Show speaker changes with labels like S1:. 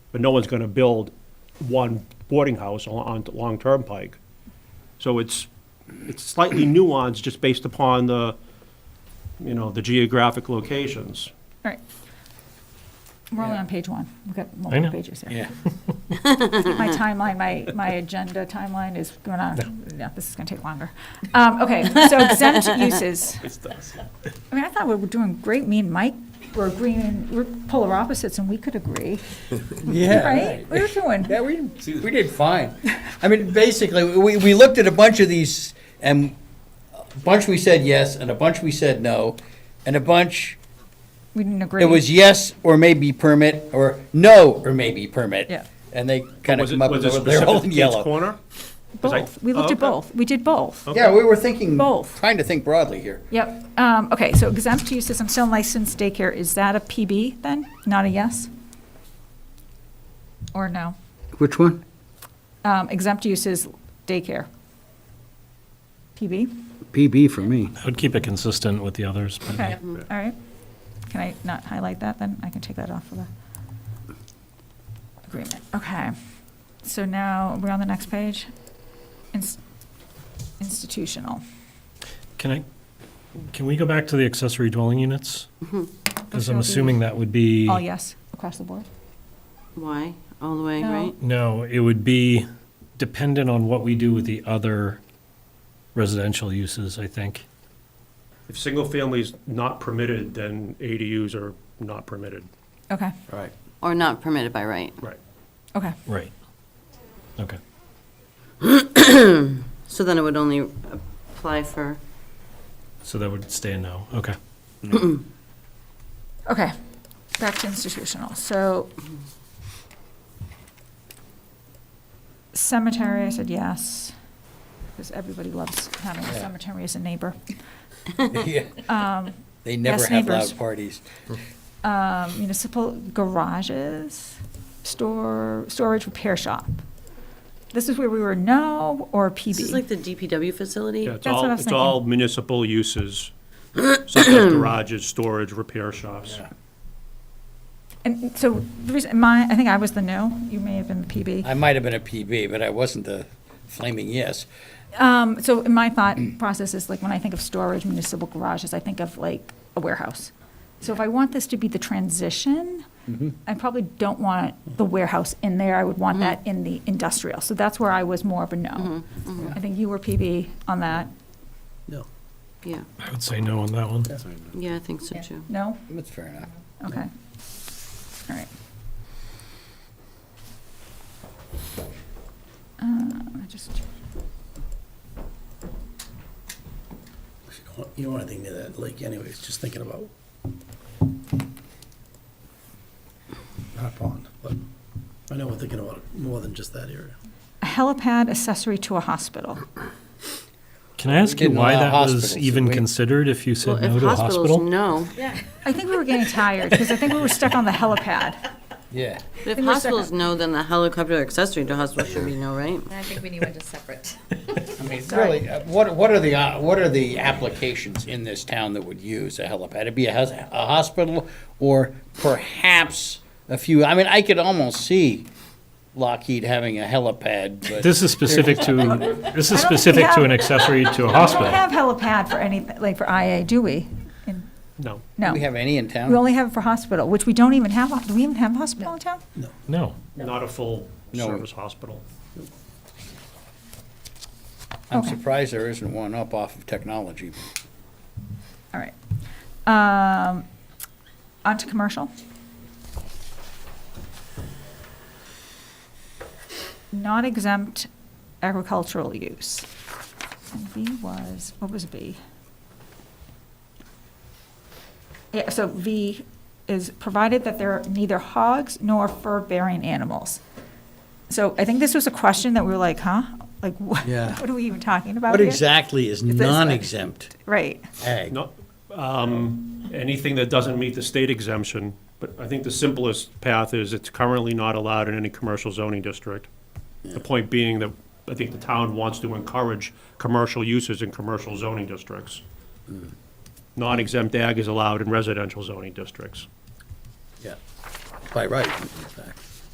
S1: but no one's gonna build one boarding house on, on Long Turnpike. So it's, it's slightly nuanced just based upon the, you know, the geographic locations.
S2: All right. We're only on page one. We've got
S3: know.
S2: multiple pages here.
S4: Yeah.
S2: My timeline, my, my agenda timeline is going on. Yeah, this is going to take longer. Um, okay, so exempt uses. I mean, I thought we were doing great. Me and Mike were agreeing, we're polar opposites and we could agree,
S4: Yeah.
S2: right? We were doing.
S4: Yeah, we, we did fine. I mean, basically, we, we looked at a bunch of these, and a bunch we said yes, and a bunch we said no, and a bunch,
S2: We didn't agree.
S4: it was yes or maybe permit, or no or maybe permit.
S2: Yeah.
S4: And they kind of
S1: Was it,
S4: come up
S1: was
S4: with,
S1: it
S4: they're all
S1: specific to
S4: in
S1: Kate's
S4: yellow.
S1: Corner? 'Cause I- Oh,
S2: Both. We looked at
S1: Okay.
S2: both. We did both.
S4: Yeah, we were thinking,
S2: Both.
S4: trying to think broadly here.
S2: Yep. Um, okay, so exempt uses, I'm still licensed daycare. Is that a PB then? Not a yes? Or no?
S4: Which one?
S2: Um, exempt uses daycare. PB?
S4: PB for me.
S3: I would keep it consistent with the others, but
S2: Okay, all right. Can I not highlight that then? I can take that off of the agreement. Okay. So now we're on the next page. Ins- Institutional.
S3: can I, can we go back to the accessory dwelling units?
S5: Mm-hmm.
S3: Because I'm assuming that would be,
S2: All yes, across the board?
S5: Why? All the way,
S2: No.
S5: right?
S3: no, it would be dependent on what we do with the other residential uses, I think.
S1: If single family's not permitted, then ADUs are not permitted.
S2: Okay,
S4: Right.
S5: Or not permitted by right.
S1: Right.
S2: okay.
S3: Right. Okay.
S5: So then it would only apply for,
S3: So that would stay a no. Okay.
S2: Okay, back to institutional, so. Cemetery, I said yes, because everybody loves having a
S4: Yeah.
S2: cemetery as a neighbor.
S4: They never
S2: Um, Yes,
S4: have
S2: neighbors.
S4: loud parties.
S2: Um, Municipal garages, store, storage repair shop. This is where we were no or
S5: this is like
S2: PB.
S5: the DPW facility?
S1: Yeah, it's
S2: That's what
S1: all,
S2: I was
S1: it's all municipal uses, such as garages, storage, repair shops.
S2: And so, the reason, my, I think I was the no, you may have been the PB.
S4: I might have been a PB, but I wasn't the flaming yes.
S2: Um, so my thought process is like when I think of storage municipal garages, I think of like a warehouse. So if I want this to be the transition,
S5: Mm-hmm.
S2: I probably don't want the warehouse in there. I would want that in the industrial. So that's where I was more of a
S5: Mm-hmm.
S2: no. I think you were PB on that.
S5: Yeah,
S3: I would say no on that one.
S5: yeah, I think so too.
S2: No?
S4: That's fair enough.
S2: Okay. All right. Uh, I just,
S6: You don't want- You don't want anything near that lake anyways, just thinking about. Not pond, but I know we're thinking about it more than just that area.
S2: a helipad accessory to a hospital.
S3: Can I ask you
S4: didn't
S3: why
S4: allow
S3: that
S4: hospitals,
S3: was
S4: did
S3: even
S4: we?
S3: considered if you said
S5: Well, if
S3: no to a
S5: hospitals,
S3: hospital?
S5: no.
S2: I think we were getting tired because I think we were stuck on the helipad.
S4: Yeah.
S5: But if
S2: Give me a
S5: hospitals no, then the helicopter accessory to hospital should be no, right?
S7: I think we need one just separate.
S4: I mean, really, uh, what, what are the, uh, what are the applications in this town that would use a helipad? It'd be a, hos- a hospital or perhaps a few, I mean, I could almost see Lockheed having a helipad, but
S3: This is specific to, this is
S2: I don't think we
S3: specific to
S2: have-
S3: an accessory to a
S2: We
S3: hospital.
S2: don't have helipad for any, like for IA, do we? In-
S1: No.
S2: No.
S4: do we have any in
S2: We
S4: town?
S2: only have it for hospital, which we don't even have, do we even have a hospital in town?
S3: No.
S1: Not a full
S4: No.
S1: service hospital.
S4: I'm
S2: okay.
S4: surprised there isn't one up off of technology.
S2: All right. Um, On to commercial. Not exempt agricultural use. And B was, what was B? Yeah, so V is provided that there are neither hogs nor fur-bearing animals. So I think this was a question that we were like, huh? Like, what,
S4: Yeah.
S2: what are we even talking about
S4: What
S2: here?
S4: exactly is
S2: like-
S4: non-exempt
S2: Right.
S4: ag?
S1: Not, um, anything that doesn't meet the state exemption, but I think the simplest path is it's currently not allowed in any commercial zoning district. The point being that I think the town wants to encourage commercial uses in commercial zoning districts. Non-exempt ag is allowed in residential zoning districts.
S4: Yeah, by right, in fact.